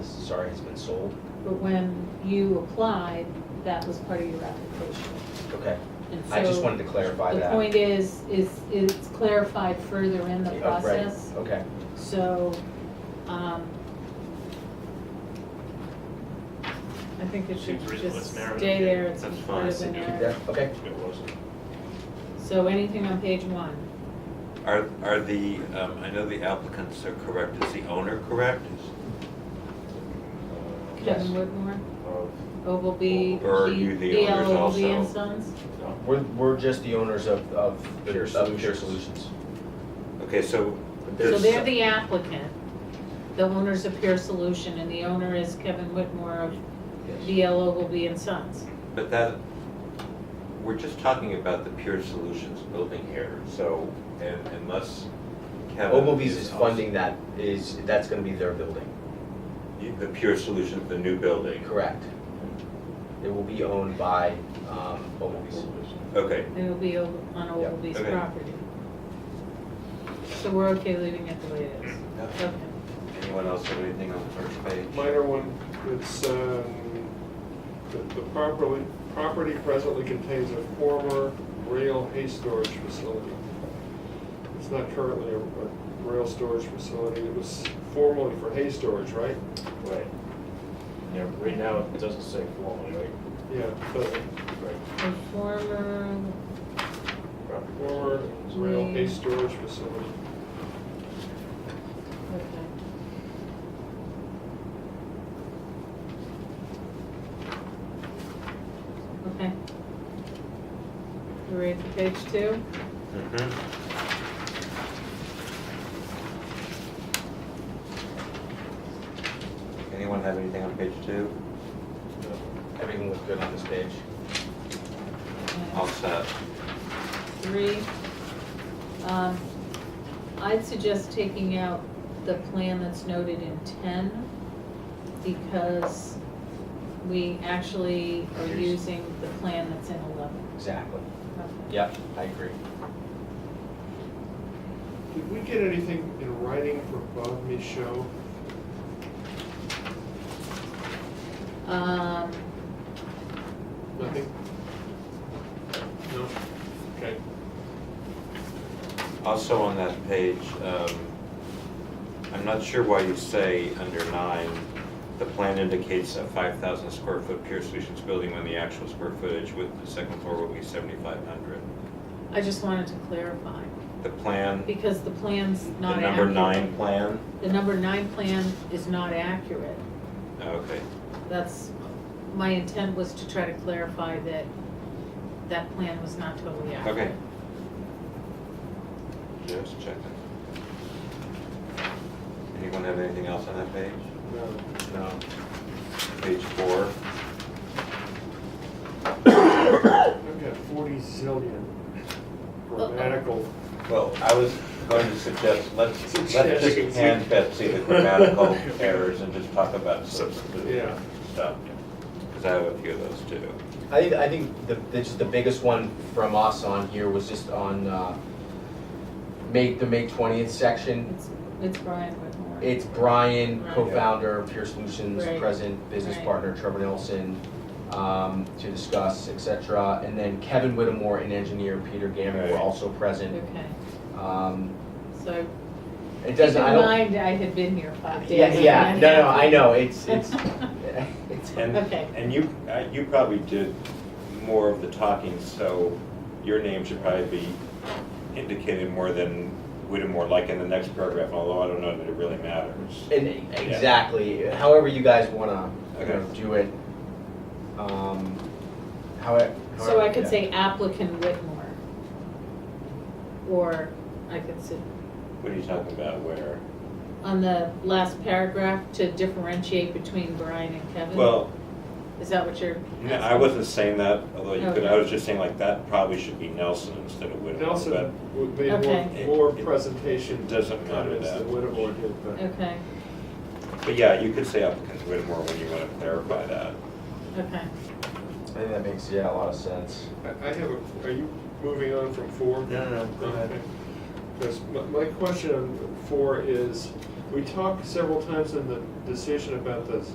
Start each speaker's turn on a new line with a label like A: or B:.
A: sorry, has been sold?
B: But when you applied, that was part of your application.
A: Okay,
B: And
A: I just
B: so
A: wanted to clarify
B: The
A: that.
B: point is, is it's clarified further in the
A: Yeah, right,
B: process,
A: Okay,
B: so, um, I think it should
C: Seems reasonable.
B: just
C: It's narrative,
B: stay there,
C: yeah.
B: it's
C: That's
B: part
C: fine.
B: of the
C: Keep
A: keep
B: narrative.
A: that, okay.
C: It wasn't.
B: So anything on page one?
D: Are, are the, um, I know the applicants are correct, is the owner correct?
A: Yes.
B: Kevin Whitmore,
C: uh, Of,
B: Ogilvy,
D: Or are you the
B: D L
D: owners
B: Ogilvy
D: also?
B: and Sons?
C: no,
A: We're, we're just the owners of, of
D: The
A: Pure, of Pure Solutions.
D: Okay, so
B: So
D: there's,
B: they're the applicant, the owner's a Pure Solution, and the owner is Kevin Whitmore of D L Ogilvy and Sons.
D: but that, we're just talking about the Pure Solutions building here, so, and unless Kevin.
A: Ogilvy's is
D: also-
A: funding that, is, that's gonna be their building,
D: The Pure Solutions, the new building.
A: correct? It will be owned by, um, Ogilvy's.
D: Okay,
B: It will be o- on Ogilvy's
D: Okay.
B: property. So we're okay leaving it the way it is? Okay.
D: anyone else have anything on the first page?
E: Minor one, it's, um, the the properly, property presently contains a former rail hay storage facility. It's not currently a a rail storage facility, it was formerly for hay storage, right?
C: right. Yeah, right now, it doesn't say formally, right?
E: Yeah, but
C: Right.
B: The former,
C: Property.
E: former rail hay storage facility.
B: okay. Okay. You ready for page two?
D: Mhm. Anyone have anything on page two?
A: Everything looks good on this page.
B: And-
D: All set.
B: three. Um, I'd suggest taking out the plan that's noted in ten, because we actually are using the plan that's in eleven.
A: Exactly. Yep, I agree.
E: Did we get anything in writing from Bob Michaud?
B: Um,
E: Nothing? No? Okay.
D: Also on that page, um, I'm not sure why you say under nine, the plan indicates a five thousand square foot Pure Solutions building when the actual square footage with the second floor will be seventy-five hundred.
B: I just wanted to clarify,
D: The plan,
B: because the plan's
D: Mm-hmm. the
B: not
D: number
B: accurate.
D: nine plan,
B: The number nine plan is not accurate.
D: Oh, okay,
B: That's, my intent was to try to clarify that that plan was not totally accurate.
D: okay. Just checking. Anyone have anything else on that page?
E: No.
A: No.
D: Page four,
E: I've got forty zillion
B: Oh,
E: grammatical.
D: well, I was going to suggest, let's, let's just
E: Suggest.
D: hand Betsy the grammatical errors and just talk about substantive
E: Yeah.
D: stuff. Because I have a few of those too.
A: I think, I think the, the, just the biggest one from us on here was just on, uh, May, the May twentieth section.
B: It's, it's Brian Whitmore.
A: It's Brian,
B: Right.
A: co-founder of Pure Solutions,
B: Right.
A: present business
B: Right.
A: partner Trevor Nelson, um, to discuss, et cetera. And then Kevin Whittemore and engineer Peter Gammon were
D: Right.
A: also present.
B: Okay,
A: Um,
B: so
A: it
B: keep
A: doesn't, I
B: in
A: don't.
B: mind, I had been here five days.
A: Yeah,
B: and
A: yeah,
B: that
A: no, no, I
B: happened.
A: know, it's, it's, it's,
D: And,
B: Okay.
D: and you, uh, you probably did more of the talking, so your name should probably be indicated more than Whittemore, like in the next paragraph, although I don't know that it really matters.
A: and exactly, however you guys wanna, you know,
D: Okay.
A: do it. Um, however.
B: So I could say applicant Whitmore. Or I could say,
D: What are you talking about, where?
B: on the last paragraph, to differentiate between Brian and Kevin?
D: Well,
B: Is that what you're?
D: no, I wasn't saying that, although you could, I
B: Okay.
D: was just saying like, that probably should be Nelson instead of Whittemore.
E: Nelson would made
B: Okay.
E: more, more
D: but It
E: presentation
D: doesn't matter
E: comments
D: that.
E: than Whittemore did, but.
B: Okay,
D: But yeah, you could say applicant Whittemore when you want to clarify that.
B: okay.
A: I think that makes, yeah, a lot of sense.
E: I I have a, are you moving on from four?
D: No, no, no, go ahead.
E: Because my, my question on four is, we talked several times in the decision about the